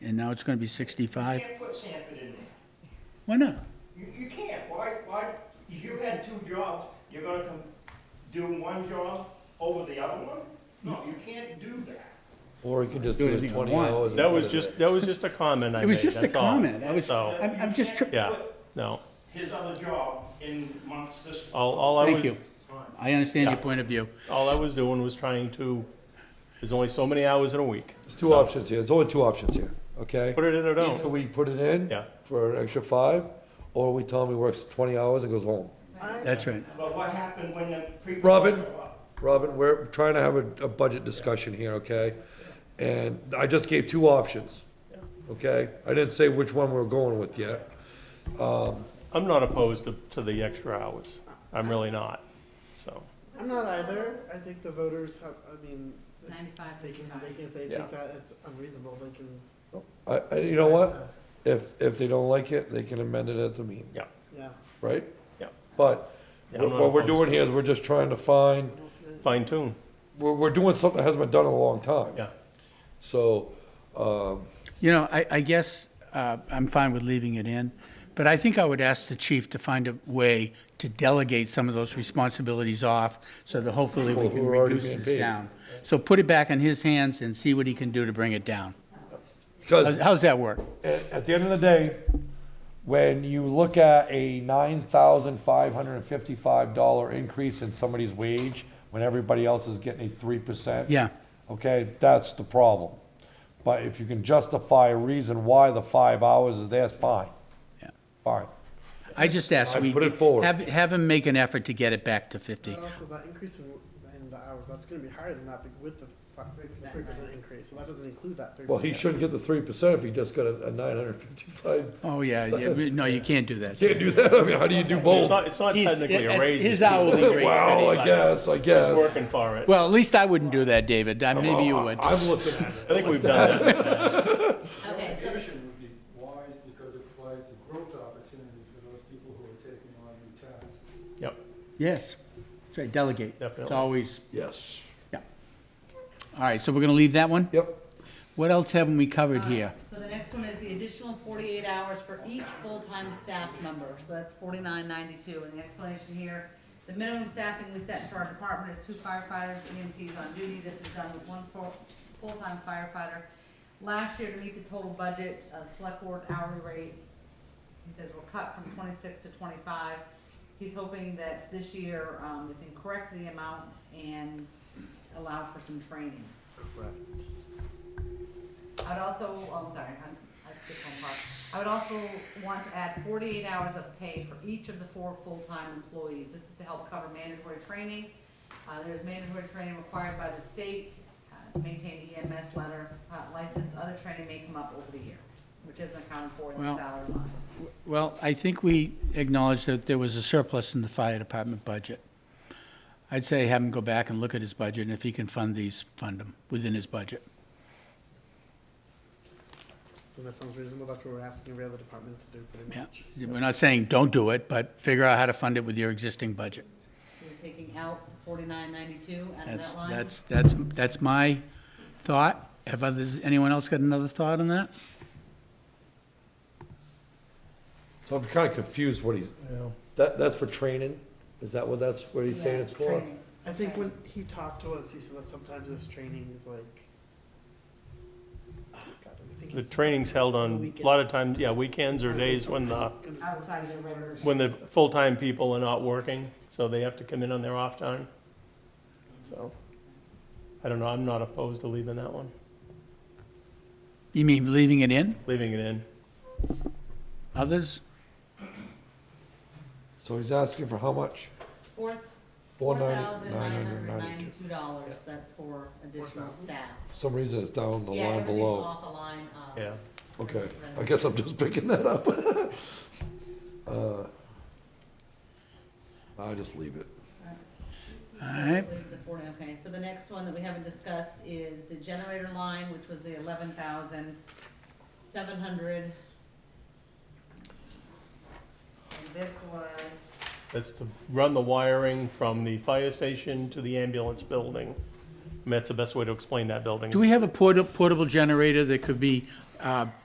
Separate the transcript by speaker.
Speaker 1: and now it's gonna be sixty-five?
Speaker 2: can't put Sanford in there.
Speaker 1: Why not?
Speaker 2: You, you can't, why, why, if you had two jobs, you're gonna com- do one job over the other one? No, you can't do that.
Speaker 3: Or he could just
Speaker 1: Do
Speaker 3: do his
Speaker 1: anything I
Speaker 3: twenty
Speaker 1: want.
Speaker 3: hours. and
Speaker 4: That
Speaker 3: put
Speaker 4: was
Speaker 3: it in.
Speaker 4: just, that was just a comment I made.
Speaker 1: It was just a
Speaker 4: that's all.
Speaker 1: comment, I was,
Speaker 4: So,
Speaker 1: I'm, I'm just,
Speaker 2: You
Speaker 1: tr-
Speaker 2: can't
Speaker 4: yeah,
Speaker 2: put
Speaker 4: no,
Speaker 2: His other job in amongst this.
Speaker 4: all, all I
Speaker 1: thank
Speaker 4: was,
Speaker 1: you. I understand your point of view.
Speaker 4: all I was doing was trying to, there's only so many hours in a week.
Speaker 3: There's two options here, there's only two options here, okay?
Speaker 4: Put it in or
Speaker 3: Either
Speaker 4: don't.
Speaker 3: we put it in.
Speaker 4: Yeah.
Speaker 3: For an extra five, or we tell him he works twenty hours and goes home.
Speaker 1: That's right.
Speaker 2: But what happened when the pre?
Speaker 3: Robin, Robin, we're trying to have a, a budget discussion here, okay? And I just gave two options, okay? I didn't say which one we're going with yet.
Speaker 4: I'm not opposed to, to the extra hours. I'm really not, so.
Speaker 5: I'm not either. I think the voters have, I mean, if
Speaker 6: 95,
Speaker 5: they can, they
Speaker 6: 95.
Speaker 5: can, if they
Speaker 4: Yeah.
Speaker 5: think that it's unreasonable, they can.
Speaker 3: I, I, you know what? If, if they don't like it, they can amend it at the meeting,
Speaker 4: Yeah,
Speaker 5: Yeah.
Speaker 3: right?
Speaker 4: yeah.
Speaker 3: But
Speaker 4: Yeah, I'm
Speaker 3: what
Speaker 4: not
Speaker 3: what we're
Speaker 4: opposed
Speaker 3: doing
Speaker 4: to
Speaker 3: here is we're just trying to find,
Speaker 4: Fine tune,
Speaker 3: we're, we're doing something that hasn't been done in a long time.
Speaker 4: yeah.
Speaker 3: So, um,
Speaker 1: You know, I, I guess, uh, I'm fine with leaving it in, but I think I would ask the chief to find a way to delegate some of those responsibilities off, so that hopefully we
Speaker 3: Well,
Speaker 1: can
Speaker 3: we're already
Speaker 1: reduce
Speaker 3: being
Speaker 1: this
Speaker 3: paid.
Speaker 1: down. So put it back in his hands and see what he can do to bring it down. How's,
Speaker 3: because
Speaker 1: how's that work?
Speaker 3: at, at the end of the day, when you look at a nine thousand five hundred and fifty-five dollar increase in somebody's wage, when everybody else is getting a three percent.
Speaker 1: Yeah.
Speaker 3: Okay, that's the problem. But if you can justify a reason why the five hours is there, it's fine,
Speaker 1: Yeah.
Speaker 3: fine.
Speaker 1: I just asked.
Speaker 3: I
Speaker 1: we-
Speaker 3: put it forward.
Speaker 1: Have, have him make an effort to get it back to fifty.
Speaker 5: But also that increase in, in the hours, that's gonna be higher than that be- with the three percent increase, so that doesn't include that three percent.
Speaker 3: Well, he shouldn't get the three percent if he just got a, a nine hundred and fifty-five.
Speaker 1: Oh, yeah, yeah, no, you can't do that.
Speaker 3: Can't do that, I mean, how do you do
Speaker 4: It's
Speaker 3: both?
Speaker 4: not, it's not
Speaker 1: He's-
Speaker 4: technically a
Speaker 1: it's-
Speaker 4: raise.
Speaker 1: His
Speaker 4: it's-
Speaker 1: hourly rate's
Speaker 3: Wow,
Speaker 1: gonna-
Speaker 3: I guess, I
Speaker 4: He's
Speaker 3: guess.
Speaker 4: working for it.
Speaker 1: Well, at least I wouldn't do that, David. I- Maybe you would.
Speaker 3: I'm looking at it.
Speaker 4: I think we've done that.
Speaker 6: Okay, so the-
Speaker 7: Mitigation would be wise because it provides a growth opportunity for those people who are taking on new tasks.
Speaker 4: Yep,
Speaker 1: Yes. Say delegate. It's
Speaker 4: Definitely.
Speaker 1: always,
Speaker 3: Yes.
Speaker 1: yeah. All right, so we're gonna leave that one?
Speaker 3: Yep.
Speaker 1: What else haven't we covered here?
Speaker 6: so the next one is the additional forty-eight hours for each full-time staff member, so that's forty-nine ninety-two, and the explanation here, the minimum staffing we set for our department is two firefighters, EMTs on duty, this is done with one full, full-time firefighter. Last year, to meet the total budget, uh, select board hourly rates, he says we're cut from twenty-six to twenty-five. He's hoping that this year, um, we can correct the amount and allow for some training. I'd also, oh, I'm sorry, I, I skipped one part. I would also want to add forty-eight hours of pay for each of the four full-time employees. This is to help cover mandatory training. Uh, there's mandatory training required by the state, uh, to maintain EMS letter, uh, license, other training may come up over the year, which isn't accounted for in
Speaker 1: Well-
Speaker 6: the salary line.
Speaker 1: Well, I think we acknowledged that there was a surplus in the fire department budget. I'd say have him go back and look at his budget, and if he can fund these, fund them within his budget.
Speaker 5: And that sounds reasonable, that's what we're asking every other department to do pretty
Speaker 1: Yeah.
Speaker 5: much.
Speaker 1: We're not saying don't do it, but figure out how to fund it with your existing budget.
Speaker 6: So you're taking out forty-nine ninety-two out of
Speaker 1: That's,
Speaker 6: that line?
Speaker 1: that's, that's, that's my thought. Have others, anyone else got another thought on that?
Speaker 3: So I'm kind of confused what he's, that, that's for training? Is that what that's, what he's saying
Speaker 6: Yes,
Speaker 3: it's for?
Speaker 6: training.
Speaker 5: I think when he talked to us, he said that sometimes this training is like. Oh, God, I think
Speaker 4: the
Speaker 5: he-
Speaker 4: training's held on, a lot of times, yeah, weekends or days when the,
Speaker 6: Outside of the regular.
Speaker 4: when the full-time people are not working, so they have to come in on their off time. So, I don't know, I'm not opposed to leaving that one,
Speaker 1: You mean leaving it in?
Speaker 4: leaving it in.
Speaker 1: Others?
Speaker 3: So he's asking for how much?
Speaker 6: Four,
Speaker 3: Four
Speaker 6: four
Speaker 3: nine-
Speaker 6: thousand
Speaker 3: nine
Speaker 6: nine
Speaker 3: hundred
Speaker 6: hundred
Speaker 3: ninety-two.
Speaker 6: ninety-two dollars, that's for additional staff.
Speaker 3: For some reason it's down the
Speaker 6: Yeah,
Speaker 3: line
Speaker 6: everything's
Speaker 3: below.
Speaker 6: off the line, uh,
Speaker 4: Yeah,
Speaker 3: Okay, I guess I'm just picking that up. Uh, I just leave it.
Speaker 1: All right.
Speaker 6: leave the forty, okay, so the next one that we haven't discussed is the generator line, which was the eleven thousand seven hundred. And this was,
Speaker 4: that's to run the wiring from the fire station to the ambulance building. I mean, that's the best way to explain that building.
Speaker 1: Do we have a porta- portable generator that could be uh,